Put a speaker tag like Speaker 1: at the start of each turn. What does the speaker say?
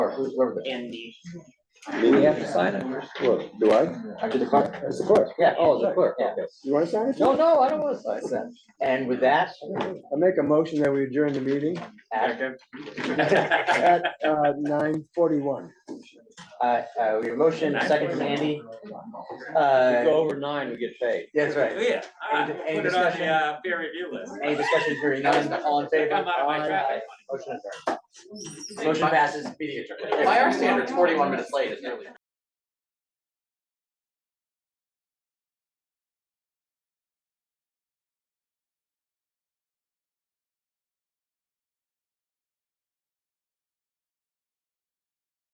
Speaker 1: clerk, who's- whoever the-
Speaker 2: Andy.
Speaker 3: We have to sign it.
Speaker 1: Look, do I?
Speaker 3: To the clerk.
Speaker 1: It's the clerk.
Speaker 3: Yeah.
Speaker 1: Oh, the clerk,
Speaker 3: Yeah.
Speaker 1: okay. You want to sign it?
Speaker 3: No, no, I don't want to sign that. And with that, uh,
Speaker 1: I make a motion that we adjourn the meeting
Speaker 3: at-
Speaker 1: at uh, nine forty-one.
Speaker 3: uh, uh, we have a motion, second from Andy. Uh,
Speaker 4: over nine, we get paid.
Speaker 3: that's right.
Speaker 5: oh Yeah, I
Speaker 3: Any- any
Speaker 5: put it on
Speaker 3: discussion?
Speaker 5: the uh, peer review list.
Speaker 3: Any discussion here, none, all in favor?
Speaker 5: I'm out of my
Speaker 3: Aye.
Speaker 5: traffic.
Speaker 3: Motion adjourned. Motion passes, meeting adjourned.
Speaker 6: By our standards, forty-one minutes late is nearly.